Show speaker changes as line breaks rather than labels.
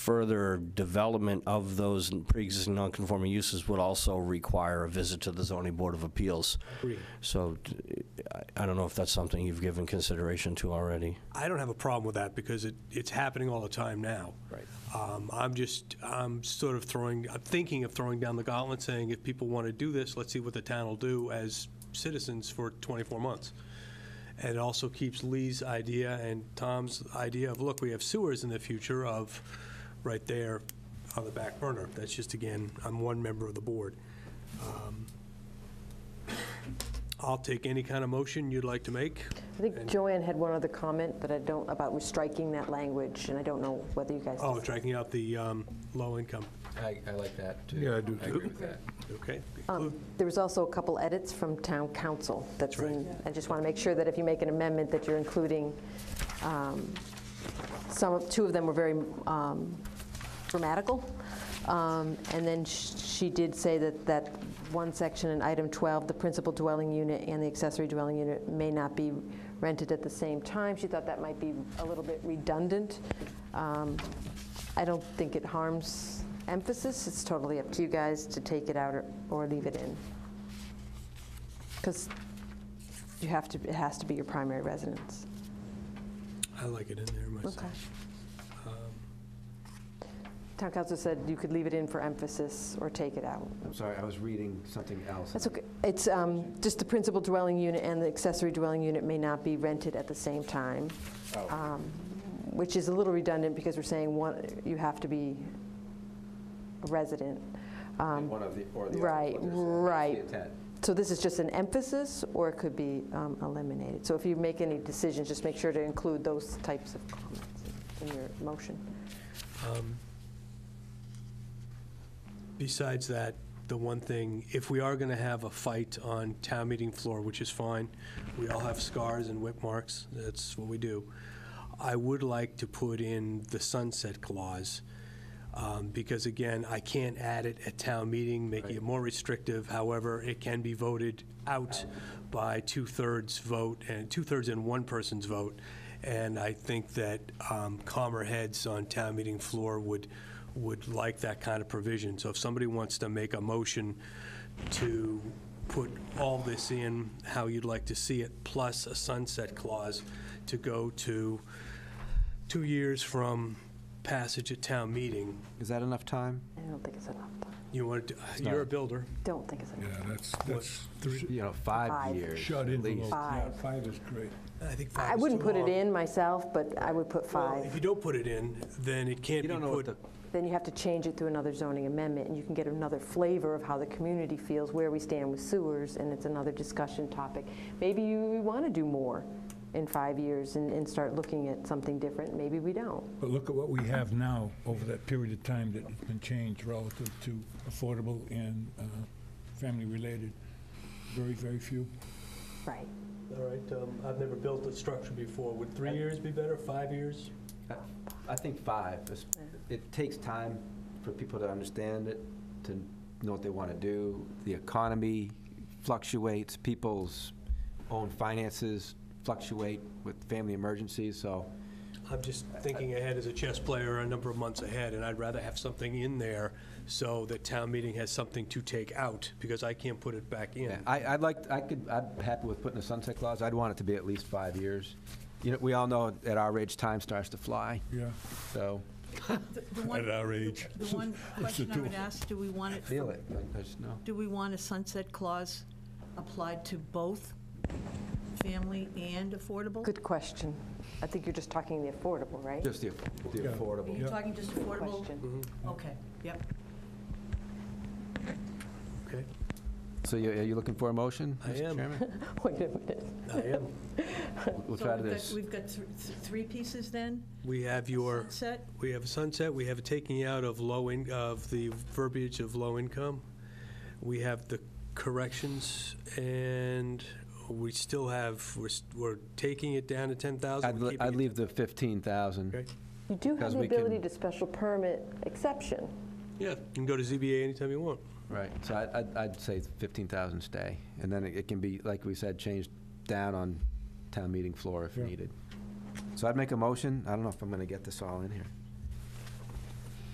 further development of those pre-existing non-conforming uses would also require a visit to the zoning board of appeals.
Agreed.
So d- I- I don't know if that's something you've given consideration to already.
I don't have a problem with that because it, it's happening all the time now.
Right.
Um, I'm just, I'm sort of throwing, I'm thinking of throwing down the gauntlet, saying if people want to do this, let's see what the town will do as citizens for 24 months. And it also keeps Lee's idea and Tom's idea of, look, we have sewers in the future of, right there on the back burner. That's just, again, I'm one member of the board. Um, I'll take any kind of motion you'd like to make.
I think Joanne had one other comment that I don't, about striking that language, and I don't know whether you guys.
Oh, tracking out the um, low income,
I, I like that, too. Yeah, I do, too. I agree with that.
okay.
Um, There was also a couple edits from town council that's
right.
in, I just want to make sure that if you make an amendment, that you're including, um, some, of two of them were very um, grammatical. Um, And then sh- she did say that, that one section in item 12, the principal dwelling unit and the accessory dwelling unit may not be rented at the same time. She thought that might be a little bit redundant. Um, I don't think it harms emphasis. It's totally up to you guys to take it out or, or leave it in. Because you have to, it has to be your primary residence.
I like it in there myself.
Um, Town council said you could leave it in for emphasis or take it out.
I'm sorry, I was reading something else.
That's okay. It's um, just the principal dwelling unit and the accessory dwelling unit may not be rented at the same time, um, which is a little redundant because we're saying one, you have to be a resident. Um,
One of the, or the other.
Right,
what is it? That's the
right.
intent.
So this is just an emphasis, or it could be um, eliminated. So if you make any decisions, just make sure to include those types of comments in your motion.
Um, Besides that, the one thing, if we are going to have a fight on town meeting floor, which is fine, we all have scars and whip marks, that's what we do. I would like to put in the sunset clause, um, because again, I can't add it at town meeting, making it more restrictive. However, it can be voted out by two-thirds vote, and two-thirds and one person's vote. And I think that um, calmer heads on town meeting floor would, would like that kind of provision. So if somebody wants to make a motion to put all this in, how you'd like to see it, plus a sunset clause to go to two years from passage at town meeting,
Is that enough time?
I don't think it's enough.
you want to, you're a builder.
Don't think it's
Yeah,
enough.
that's, that's three,
You know,
Five.
five years.
shut
at
envelope.
least.
Yeah,
Five.
five is great.
I think five
I
is
wouldn't
too
put it
long.
in myself, but I would put
Well, If
five.
you don't put it in, then it can't be
You don't know what the,
put,
Then you have to change it through another zoning amendment, and you can get another flavor of how the community feels, where we stand with sewers, and it's another discussion topic. Maybe you want to do more in five years and, and start looking at something different. Maybe we don't.
But look at what we have now over that period of time that has been changed relative to affordable and uh, family-related. Very, very few.
Right.
all right, um, I've never built a structure before. Would three years be better, five years?
I think five. is- It takes time for people to understand it, to know what they want to do. The economy fluctuates, people's own finances fluctuate with family emergencies, so
I'm just thinking ahead as a chess player, a number of months ahead, and I'd rather have something in there so that town meeting has something to take out, because I can't put it back in.
Yeah, I, I'd like, I could, I'm happy with putting a sunset clause. I'd want it to be at least five years. You know, we all know at our age, time starts to fly,
Yeah,
so.
The one-
At our age.
The one question I
two
would
of us.
ask, do we want it,
Feel it, but there's no.
do we want a sunset clause applied to both family and affordable?
Good question. I think you're just talking the affordable, right?
Just the the
Yeah.
Are
affordable.
you
Yeah.
talking just affordable?
Question.
Okay, yep.
Okay,
So you- are you looking for a motion?
I
Mr.
am.
Chairman?
Wait a minute.
I am.
We'll
So
try
we've got-
this.
We've got th- th- three pieces then?
We have your,
Sunset,
we have a sunset, we have a taking out of low in, of the verbiage of low income. We have the corrections, and we still have, we're, s- we're taking it down to ten
I'd,
thousand.
le- I'd leave the 15,000.
Okay,
You do have
Because
the
we can-
ability to special permit exception.
yeah, you can go to ZBA anytime you want.
Right, so I- I'd, I'd say 15,000 stay. And then it- it can be, like we said, changed down on town meeting floor if
Yeah.
needed. So I'd make a motion. I don't know if I'm going to get this all in here.